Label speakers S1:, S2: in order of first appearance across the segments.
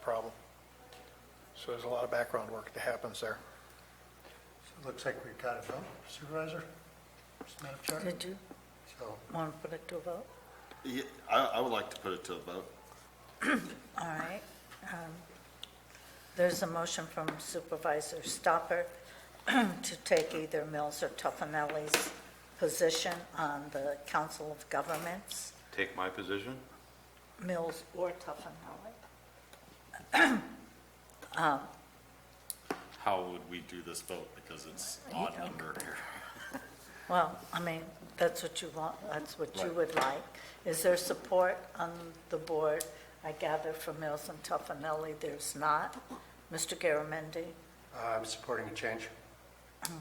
S1: problem. So there's a lot of background work that happens there.
S2: It looks like we've got it, huh, Supervisor? Madam Chair?
S3: Did you
S2: So,
S3: want to put it to a vote?
S4: Yeah, I, I would like to put it to a vote.
S3: All right. um, There's a motion from Supervisor Stopper to take either Mills or Tuffanelli's position on the Council of Governments,
S5: Take my position?
S3: Mills or Tuffanelli.
S6: How would we do this vote? Because it's odd number here.
S3: Well, I mean, that's what you want, that's what you would like. Is there support on the board? I gather from Mills and Tuffanelli, there's not. Mr. Garamendi?
S2: uh, I'm supporting a change.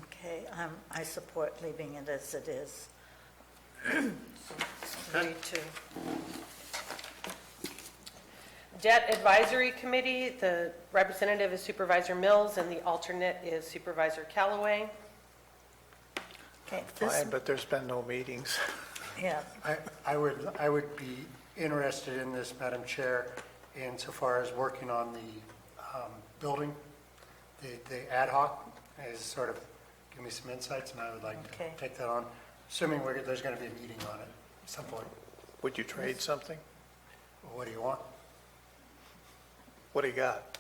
S3: Okay, um, I support leaving it as it is. Three, two.
S7: Debt Advisory Committee, the representative is Supervisor Mills, and the alternate is Supervisor Callaway.
S3: Okay, this,
S1: Fine, but there's been no meetings.
S3: yeah,
S2: I, I would, I would be interested in this, Madam Chair, insofar as working on the um, building, the, the ad hoc is sort of, give me some insights, and I would like to
S3: Okay.
S2: take that on, assuming we're, there's going to be a meeting on it at some point.
S1: Would you trade something?
S2: What do you want?
S1: What do you got?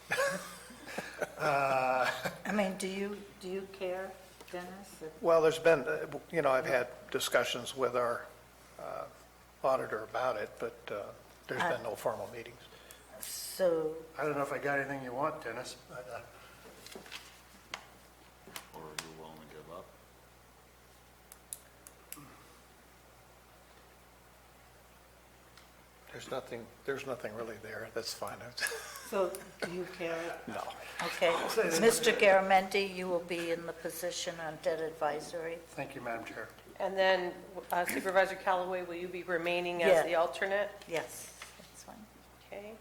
S3: I mean, do you, do you care, Dennis? if-
S1: Well, there's been, uh, you know, I've had discussions with our uh, auditor about it, but uh, there's been no formal meetings.
S3: So,
S2: I don't know if I got anything you want, Dennis, but, uh,
S5: Or are you willing to give up?
S1: There's nothing, there's nothing really there. That's fine.
S3: so do you care?
S1: No.
S3: Okay, Mr. Garamendi, you will be in the position on debt advisory?
S2: thank you, Madam Chair.
S7: And then uh, Supervisor Callaway, will you be remaining as the
S3: Yeah.
S7: alternate?
S3: Yes, that's fine.
S7: Okay.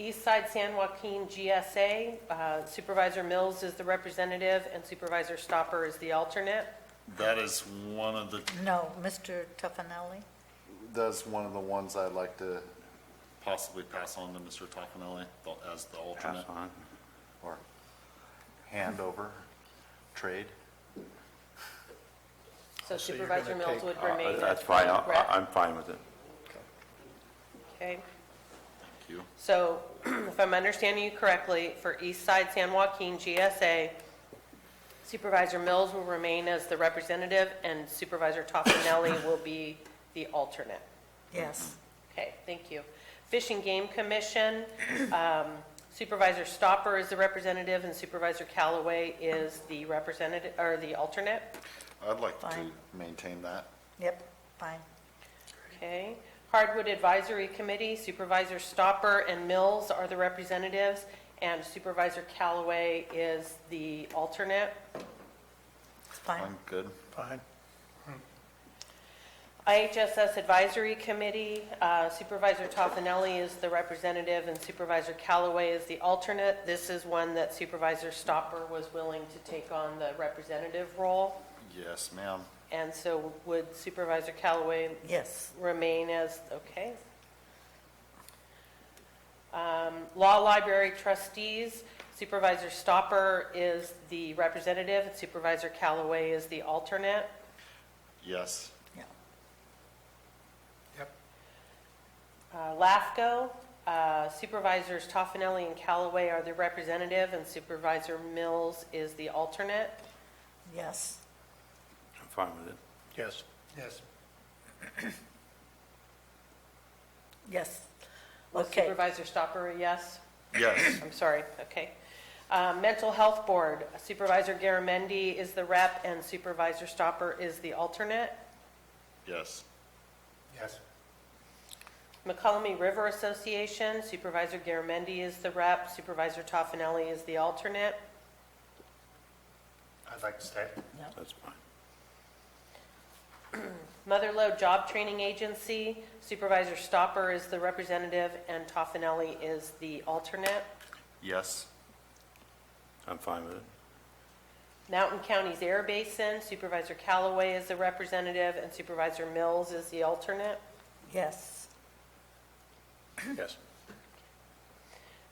S7: East Side San Joaquin GSA, uh, Supervisor Mills is the representative, and Supervisor Stopper is the alternate.
S6: That is one of the
S3: No, Mr. Tuffanelli?
S5: That's one of the ones I'd like to.
S6: possibly pass on to Mr. Toffenelli as the alternate.
S5: Pass on, or hand over, trade.
S7: So
S1: So you're
S7: Supervisor
S1: gonna
S7: Mills
S1: take-
S7: would
S5: Uh,
S7: remain as the
S5: That's fine, I-
S7: rep.
S5: I- I'm fine with it.
S7: Okay.
S6: Thank you.
S7: So if I'm understanding you correctly, for East Side San Joaquin GSA, Supervisor Mills will remain as the representative and Supervisor Toffenelli will be the alternate.
S3: Yes.
S7: Okay, thank you. Fish and Game Commission, um, Supervisor Stopper is the representative and Supervisor Callaway is the representative, or the alternate.
S5: I'd like to
S3: Fine.
S5: maintain that.
S3: Yep, fine.
S7: Okay. Hardwood Advisory Committee, Supervisor Stopper and Mills are the representatives, and Supervisor Callaway is the alternate.
S3: It's fine.
S5: I'm good.
S1: Fine.
S7: IHSS Advisory Committee, uh, Supervisor Toffenelli is the representative, and Supervisor Callaway is the alternate. This is one that Supervisor Stopper was willing to take on the representative role,
S6: Yes, ma'am.
S7: and so would Supervisor Callaway
S3: Yes.
S7: remain as, okay. Um, Law Library Trustees, Supervisor Stopper is the representative, and Supervisor Callaway is the alternate.
S6: Yes.
S3: Yeah.
S2: Yep.
S7: Uh, LAFCO, uh, Supervisors Toffenelli and Callaway are the representative, and Supervisor Mills is the alternate.
S3: Yes.
S5: I'm fine with it.
S1: Yes.
S2: Yes.
S3: Yes.
S7: Was
S3: Okay.
S7: Supervisor Stopper, a yes?
S6: Yes.
S7: I'm sorry, okay. Uh, Mental Health Board, Supervisor Garamendi is the rep, and Supervisor Stopper is the alternate.
S6: Yes.
S2: Yes.
S7: McCollum River Association, Supervisor Garamendi is the rep, Supervisor Toffenelli is the alternate.
S2: I'd like to stay.
S5: That's fine.
S7: Motherload Job Training Agency, Supervisor Stopper is the representative, and Toffenelli is the alternate.
S6: Yes.
S5: I'm fine with it.
S7: Mountain Counties Air Basin, Supervisor Callaway is the representative, and Supervisor Mills is the alternate.
S3: Yes.
S1: Yes.